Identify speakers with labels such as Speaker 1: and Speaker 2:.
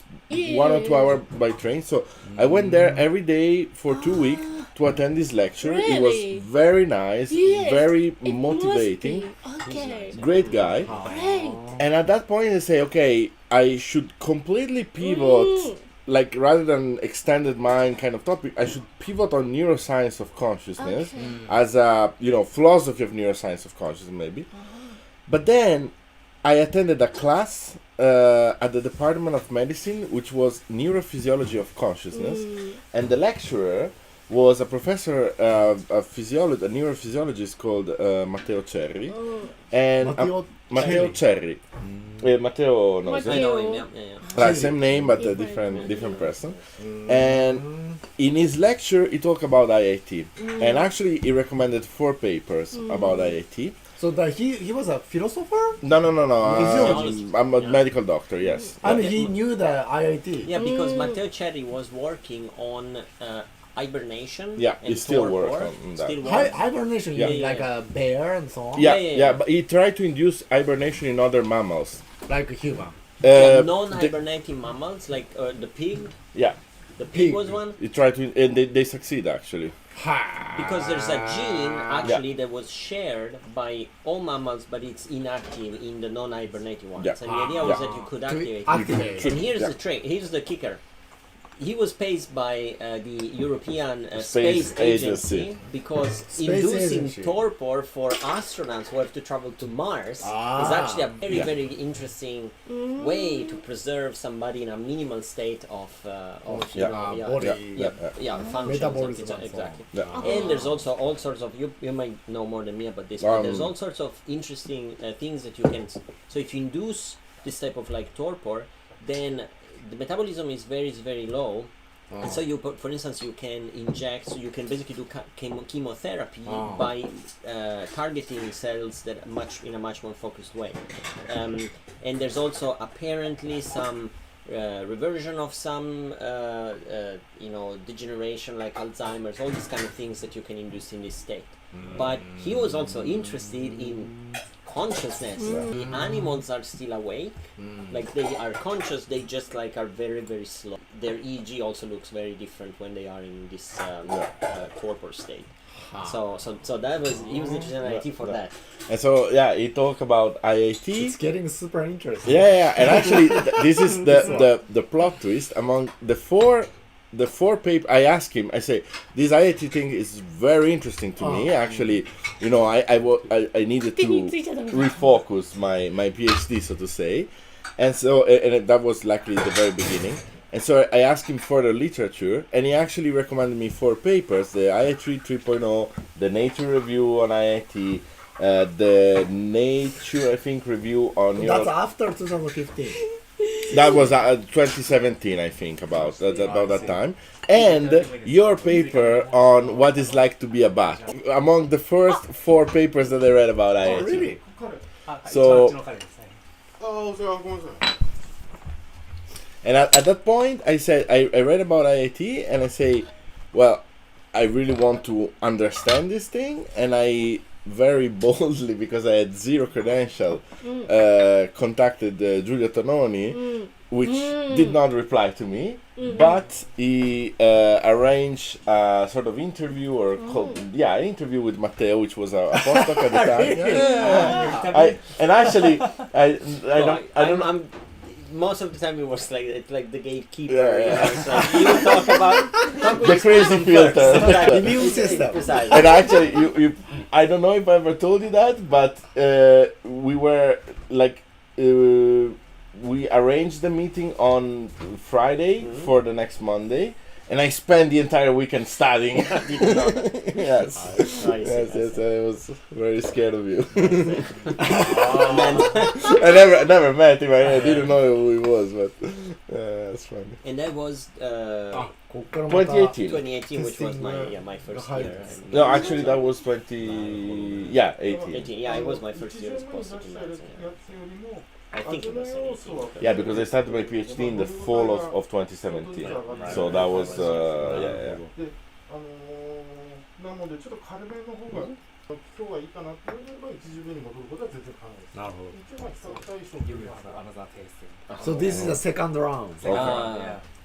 Speaker 1: one or two hour by train. So I went
Speaker 2: Mm.
Speaker 1: there every day for two weeks to attend this lecture. It
Speaker 2: Ah. Really?
Speaker 1: was very nice,
Speaker 2: Yes,
Speaker 1: very
Speaker 2: It must
Speaker 1: motivating.
Speaker 2: be. Okay.
Speaker 1: Great guy.
Speaker 2: Great.
Speaker 1: And at that point, I say, okay, I should completely pivot,
Speaker 2: Mm.
Speaker 1: like rather than extended mind kind of topic, I should pivot on neuroscience of consciousness
Speaker 2: Okay. Mm.
Speaker 1: as a you know philosophy of neuroscience of consciousness maybe.
Speaker 2: Uh-huh.
Speaker 1: But then I attended a class uh, at the Department of Medicine, which was neurophysiology of consciousness,
Speaker 2: Mm.
Speaker 1: and the lecturer was a professor uh, a physiologist, a neurophysiologist called uh, Matteo Cerri,
Speaker 2: Oh.
Speaker 1: and uh, a-
Speaker 3: Matteo
Speaker 1: Matteo
Speaker 3: Cerri.
Speaker 1: Cerri. Eh, Matteo knows
Speaker 2: Matteo.
Speaker 1: it.
Speaker 4: I know him. Yeah, yeah, yeah.
Speaker 1: Like, same name but a
Speaker 2: Different
Speaker 1: different
Speaker 4: person.
Speaker 1: different person. And in his lecture, he talked about IIT, and actually he recommended four papers about IIT.
Speaker 3: So that he he was a philosopher.
Speaker 1: No, no, no, no.
Speaker 4: Physiologist.
Speaker 1: Uh, I'm a
Speaker 4: Yeah.
Speaker 1: medical doctor. Yes.
Speaker 3: Mm. I mean,
Speaker 4: Yeah.
Speaker 3: he knew the IIT.
Speaker 4: Yeah, because
Speaker 2: Mm.
Speaker 4: Matteo Cherry was working on uh, hibernation.
Speaker 1: Yeah, he
Speaker 4: and
Speaker 1: still
Speaker 4: torpor,
Speaker 1: work on- on that.
Speaker 4: Still
Speaker 3: Hi-
Speaker 4: works.
Speaker 3: hibernation,
Speaker 1: Yeah.
Speaker 3: you mean like a bear and so on.
Speaker 1: Yeah,
Speaker 4: Yeah, yeah,
Speaker 1: yeah,
Speaker 4: yeah.
Speaker 1: but he tried to induce hibernation in other mammals.
Speaker 3: Like a human.
Speaker 1: Uh,
Speaker 4: yeah,
Speaker 1: the-
Speaker 4: non-hibernating mammals like uh, the pig.
Speaker 1: yeah,
Speaker 4: The pig,
Speaker 3: Pig.
Speaker 4: was one
Speaker 1: he tried to, and they, they succeed actually.
Speaker 3: Ha.
Speaker 4: because there's a gene actually that was shared by all mammals, but it's inactive in the non-hibernating ones.
Speaker 1: Yeah.
Speaker 4: And the idea was
Speaker 3: Yeah.
Speaker 4: that you could
Speaker 3: To
Speaker 4: activate. it.
Speaker 3: activate.
Speaker 1: Should-
Speaker 4: And here's
Speaker 1: yeah.
Speaker 4: the trick. Here's the kicker. He was paid by uh, the European uh,
Speaker 1: Space
Speaker 4: Space,
Speaker 1: Agency.
Speaker 4: Agency, because
Speaker 3: Space
Speaker 4: inducing
Speaker 3: Agency.
Speaker 4: torpor for astronauts who have to travel to Mars is
Speaker 3: Ah.
Speaker 4: actually a very,
Speaker 1: Yeah.
Speaker 4: very interesting way to preserve somebody in a minimal state of, uh, of
Speaker 3: Yeah.
Speaker 4: you know,
Speaker 3: Ah,
Speaker 4: yeah,
Speaker 3: body.
Speaker 4: yeah, yeah, yeah, functions,
Speaker 3: Metabolism
Speaker 4: etc.
Speaker 3: and so on.
Speaker 4: exactly.
Speaker 1: Yeah.
Speaker 4: And there's also all sorts of you. You might know more than me about this, but there's
Speaker 1: Um,
Speaker 4: all sorts of interesting uh, things that you can. s- So if you induce this type of like torpor, then the metabolism is very is very low, and
Speaker 3: Oh.
Speaker 4: so you, put- for instance, you can inject. So you can basically do ca- chemo- chemotherapy
Speaker 3: Ah.
Speaker 4: by uh, targeting cells that are much in a much more focused way. Um, and there's also apparently some uh, reversion of some, uh, uh, you know, degeneration like Alzheimer's, all these kind of things that you can induce in this state. But he was also interested in consciousness. The animals are still awake,
Speaker 1: Mm.
Speaker 4: like they are conscious. They just like are very very slow. Their EEG also looks very different when they are in this um, uh, torpor state. So so so that was he was interested in IT for
Speaker 1: Ah. Yeah.
Speaker 4: that.
Speaker 1: And so yeah, he talked about
Speaker 3: It's
Speaker 1: IIT.
Speaker 3: getting super interesting.
Speaker 1: Yeah, yeah, and actually, th- this is the, the the plot twist among the four the four paper. I ask him. I say this IIT thing is very interesting to me. Actually, you know, I I, wa- I, I needed to
Speaker 2: 手についちゃダメだ
Speaker 1: refocus my my PhD, so to say, and so and, and that was likely the very beginning. And so I asked him for the literature, and he actually recommended me four papers: the IIT 3.0, oh, the Nature Review on IIT, uh, the Nature, I think, review on
Speaker 3: That's
Speaker 1: neuro-
Speaker 3: after 2015.
Speaker 1: that was uh, 2017, I think, about that, about that time. And your paper on what it's like to be a bat, among the first four papers that I read about IIT.
Speaker 3: really?
Speaker 1: そう
Speaker 5: の彼ですね
Speaker 6: ああ、それはごめんなさい。
Speaker 1: And at, at that point, I said I, I read about IIT, and I say, well, I really want to understand this thing, and I very boldly because I had zero credential uh, contacted uh, Giulio Tononi, which did not reply to me, but he uh, arranged a sort of interview or called, yeah an interview with Matteo, which was a, a postdoc at the time. Yeah. I, and actually, I I
Speaker 4: No,
Speaker 1: don't I don't.
Speaker 4: I'm, I'm- most of the time it was like it's like the gatekeeper.
Speaker 1: Yeah,
Speaker 4: you
Speaker 1: yeah.
Speaker 4: know, it's like you talk about talk
Speaker 1: the crazy filter.
Speaker 4: Exactly.
Speaker 3: The immune system.
Speaker 4: Precisely.
Speaker 1: and actually, you, you, I don't know if I ever told you that, but uh, we were like, uh, we arranged the meeting on Friday for the next Monday, and I spent the entire weekend studying. yes.
Speaker 4: I see,
Speaker 1: Yes,
Speaker 4: I
Speaker 1: yes, I was very scared of you.
Speaker 4: and,
Speaker 1: I never, I never met him. I, I didn't know who he was, but uh, that's funny.
Speaker 4: and that was uh,
Speaker 3: Ah, こっからまた
Speaker 1: 2018.
Speaker 4: 2018, which was my
Speaker 3: Testing,
Speaker 4: yeah my first
Speaker 3: the
Speaker 4: year.
Speaker 3: hybrids.
Speaker 4: And-
Speaker 1: No, actually, that was 20. Yeah, 18.
Speaker 4: 18, yeah, it was my first year as postdoc in medicine. yeah. I think it was 18.
Speaker 1: Yeah, because I started my PhD in the fall of, of 2017. So that uh, was, uh, yeah, yeah.
Speaker 6: で、あのー、なのでちょっと軽めの方が
Speaker 2: 今日はいいかなっていうのが一時分に戻ることは全然可能です。
Speaker 4: なるほど。
Speaker 2: 一応まあ最初
Speaker 4: You will have another
Speaker 3: So
Speaker 4: tasting.
Speaker 3: this is the second round.
Speaker 4: Second
Speaker 1: Ah.
Speaker 4: one, yeah.